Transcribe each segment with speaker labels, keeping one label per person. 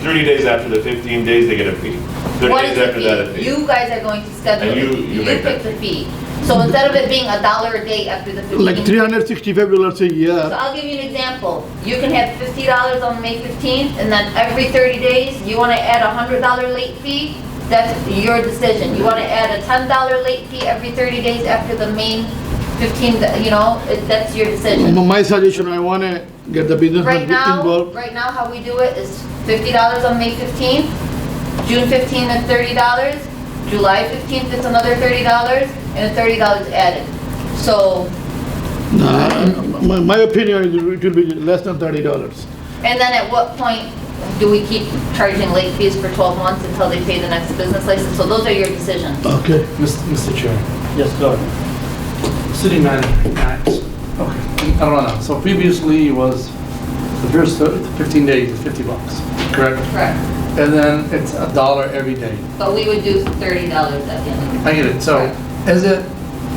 Speaker 1: 30 days after the 15 days, they get a fee. 30
Speaker 2: What is
Speaker 1: days
Speaker 2: the
Speaker 1: after that, a
Speaker 2: fee?
Speaker 1: fee.
Speaker 2: You guys are going to schedule,
Speaker 1: And you-
Speaker 2: it.
Speaker 1: you
Speaker 2: you
Speaker 1: make that.
Speaker 2: pick the fee. So instead of it being a dollar a day after the
Speaker 3: Like
Speaker 2: 15.
Speaker 3: $365 dollars a
Speaker 2: So
Speaker 3: year.
Speaker 2: I'll give you an example. You can have $50 on May 15th and then every 30 days, you want to add a $100 late fee? That's your decision. You want to add a $10 late fee every 30 days after the main 15, you know, it- that's your decision.
Speaker 3: My suggestion, I want to get the businessman
Speaker 2: Right now,
Speaker 3: involved.
Speaker 2: right now, how we do it is fifty dollars on May fifteenth, June fifteenth is thirty dollars, July fifteenth is another thirty dollars, and a thirty dollars added. So,
Speaker 3: Nah, My my opinion is it will be less than $30.
Speaker 2: and then at what point do we keep charging late fees for twelve months until they pay the next business license? So those are your decisions.
Speaker 3: Okay.
Speaker 4: Mr. Chair,
Speaker 5: Yes, go ahead.
Speaker 4: city manager, Max. Okay, I don't know. So previously it was the first fifteen days is fifty bucks, correct?
Speaker 2: Correct.
Speaker 4: And then it's a dollar every day.
Speaker 2: But we would do thirty dollars at the end.
Speaker 4: I get it. So is it,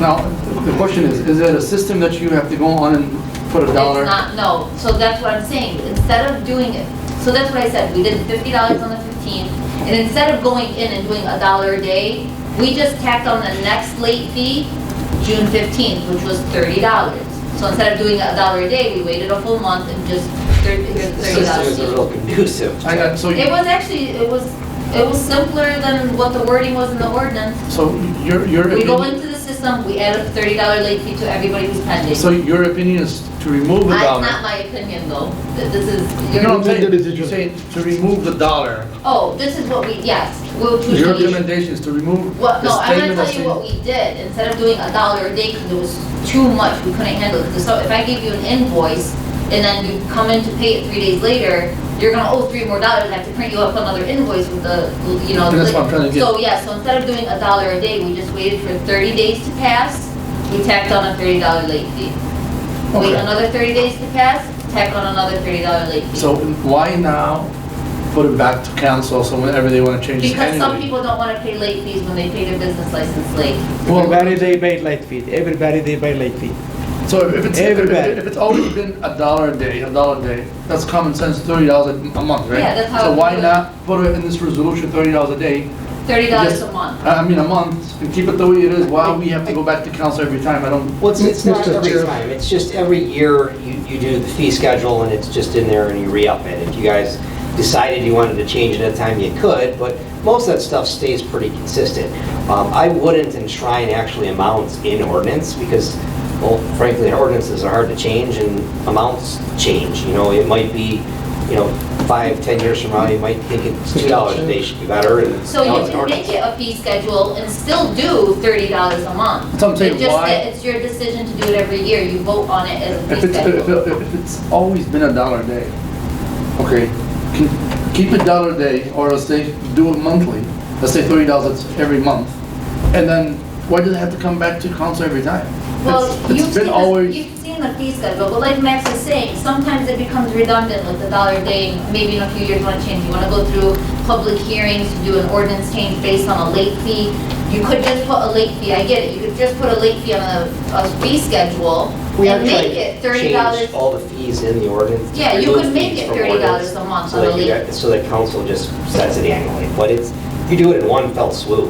Speaker 4: now, the question is, is it a system that you have to go on and put a dollar?
Speaker 2: It's not, no, so that's what I'm saying, instead of doing it, so that's what I said, we did fifty dollars on the fifteenth, and instead of going in and doing a dollar a day, we just tacked on the next late fee, June fifteenth, which was thirty dollars. So instead of doing a dollar a day, we waited a full month and just thirty, here's
Speaker 4: The
Speaker 2: thirty
Speaker 4: system is a
Speaker 2: dollars.
Speaker 4: little confusing.
Speaker 5: Elusive.
Speaker 4: I got, so,
Speaker 2: It
Speaker 4: you-
Speaker 2: was actually, it was, it was simpler than what the wording was in the ordinance.
Speaker 4: so your, your
Speaker 2: We go
Speaker 4: opinion,
Speaker 2: into the system, we add a thirty dollar late fee to everybody who's pending.
Speaker 4: so your opinion is to remove the
Speaker 2: That's
Speaker 4: dollar?
Speaker 2: not my opinion though, Th- this is your.
Speaker 4: No, I'm
Speaker 3: That is
Speaker 4: saying,
Speaker 3: it.
Speaker 4: you're saying to remove the dollar.
Speaker 2: Oh, this is what we, yes, we'll choose.
Speaker 4: Your recommendation is to remove
Speaker 2: Well, no,
Speaker 4: the
Speaker 2: I'm gonna
Speaker 4: statement of
Speaker 2: tell you what we did, instead of doing a dollar a day, because it was too much, we couldn't handle it. So if I give you an invoice, and then you come in to pay it three days later, you're gonna owe three more dollars, and I have to print you up another invoice with the, you know.
Speaker 4: That's
Speaker 2: the-
Speaker 4: what I'm trying to get.
Speaker 2: So, yeah, so instead of doing a dollar a day, we just waited for thirty days to pass, we tacked on a thirty dollar late fee. Wait
Speaker 4: Okay.
Speaker 2: another thirty days to pass, tack on another thirty dollar late fee.
Speaker 4: So why now put it back to council so whenever they want to change it
Speaker 2: Because some
Speaker 4: annually?
Speaker 2: people don't wanna pay late fees when they pay their business license late.
Speaker 5: Everybody they pay late fee, everybody they pay late fee.
Speaker 4: So if it's, if
Speaker 5: Everybody.
Speaker 4: if it's always been a dollar a day, a dollar a day, that's common sense, thirty dollars a month, right?
Speaker 2: Yeah, that's how
Speaker 4: So
Speaker 2: it
Speaker 4: why
Speaker 2: would-
Speaker 4: not put it in this resolution, thirty dollars a day,
Speaker 2: Thirty dollars
Speaker 4: Yes.
Speaker 2: a month.
Speaker 4: I I mean, a month, and keep it the way it is, why we have to go back to council every time, I don't.
Speaker 6: Well, it's, it's not
Speaker 3: Mr.
Speaker 6: every
Speaker 3: Chair.
Speaker 6: time, it's just every year you, you do the fee schedule and it's just in there and you re-up it. If you guys decided you wanted to change it at a time, you could, but most of that stuff stays pretty consistent. Um, I wouldn't enshrine actually amounts in ordinance because, well, frankly, ordinances are hard to change and amounts change, you know, it might be, you know, five, ten years from now, you might think it's two dollars a day should be better and.
Speaker 2: So
Speaker 6: now it's
Speaker 2: you
Speaker 6: an
Speaker 2: can
Speaker 6: ordinance.
Speaker 2: make it a fee schedule and still do thirty dollars a month.
Speaker 4: That's what I'm saying,
Speaker 2: It's just
Speaker 4: why-
Speaker 2: that It's your decision to do it every year, you vote on it as a
Speaker 4: If
Speaker 2: fee
Speaker 4: it's, if
Speaker 2: schedule.
Speaker 4: it- if it's always been a dollar a day, okay, keep, keep a dollar a day, or let's say, do it monthly, let's say thirty dollars every month, and then, why does it have to come back to council every time?
Speaker 2: Well,
Speaker 4: It's-
Speaker 2: you've
Speaker 4: It's
Speaker 2: seen,
Speaker 4: been
Speaker 2: the-
Speaker 4: always,
Speaker 2: you've seen the fee schedule, but like Max is saying, sometimes it becomes redundant with the dollar a day, maybe in a few years you wanna change, you wanna go through public hearings to do an ordinance change based on a late fee. You could just put a late fee, I get it, you could just put a late fee on a, a fee schedule
Speaker 6: We are
Speaker 2: and
Speaker 6: trying
Speaker 2: make it
Speaker 6: to
Speaker 2: thirty
Speaker 6: change
Speaker 2: dollars
Speaker 6: all the fees in the ordinance.
Speaker 2: Yeah, you
Speaker 6: remove
Speaker 2: could make
Speaker 6: fees
Speaker 2: it
Speaker 6: from
Speaker 2: $30
Speaker 6: ordinance
Speaker 2: a month
Speaker 6: so
Speaker 2: on
Speaker 6: that
Speaker 2: the
Speaker 6: you
Speaker 2: lease.
Speaker 6: got- So that council just sets it annually, but it's, you do it in one fell swoop.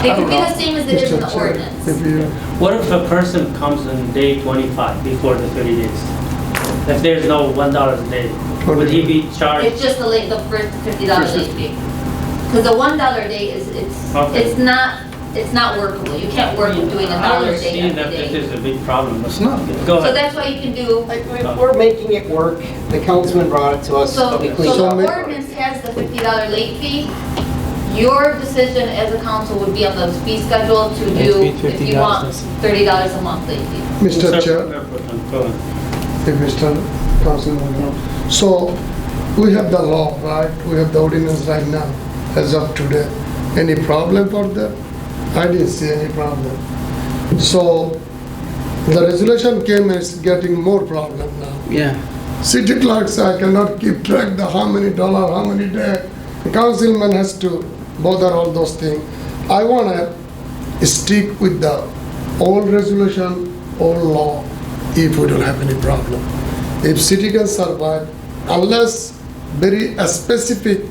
Speaker 2: It
Speaker 4: I
Speaker 2: could
Speaker 4: don't
Speaker 2: be the
Speaker 4: know.
Speaker 2: same as it is in the ordinance.
Speaker 7: What if a person comes on day 25 before the 30 days? If there's no $1 a day, would he be
Speaker 2: It's
Speaker 7: charged?
Speaker 2: just the late, the first fifty dollar
Speaker 4: First
Speaker 2: late fee. Because the one dollar a day is, it's,
Speaker 7: Okay.
Speaker 2: it's not, it's not workable. You can't work with doing a dollar a day
Speaker 7: I understand that
Speaker 2: every
Speaker 7: this
Speaker 2: day.
Speaker 7: is a big problem. but-
Speaker 4: It's not.
Speaker 2: So
Speaker 7: Go ahead.
Speaker 2: that's why you can do,
Speaker 6: Like, we- We're making it work, the councilman brought it to us,
Speaker 2: so,
Speaker 6: so we cleaned it
Speaker 2: so
Speaker 6: up.
Speaker 2: the ordinance has the fifty dollar late fee. Your decision as a council would be on the fee schedule to do,
Speaker 5: Late fee,
Speaker 2: if you
Speaker 5: $50.
Speaker 2: want, thirty dollars a month late fee.
Speaker 8: Mr.
Speaker 7: Sir,
Speaker 8: Chair,
Speaker 7: Go ahead.
Speaker 8: if Mr. Councilman, no. so we have the law, right? We have the ordinance right now, as of today. Any problem for that? I didn't see any problem. So the resolution came, it's getting more problem now.
Speaker 5: Yeah.
Speaker 8: City clerks, I cannot keep track the how many dollar, how many day. The Councilman has to bother all those things. I wanna stick with the old resolution, old law, if we don't have any problem. If city can survive, unless very uh, specific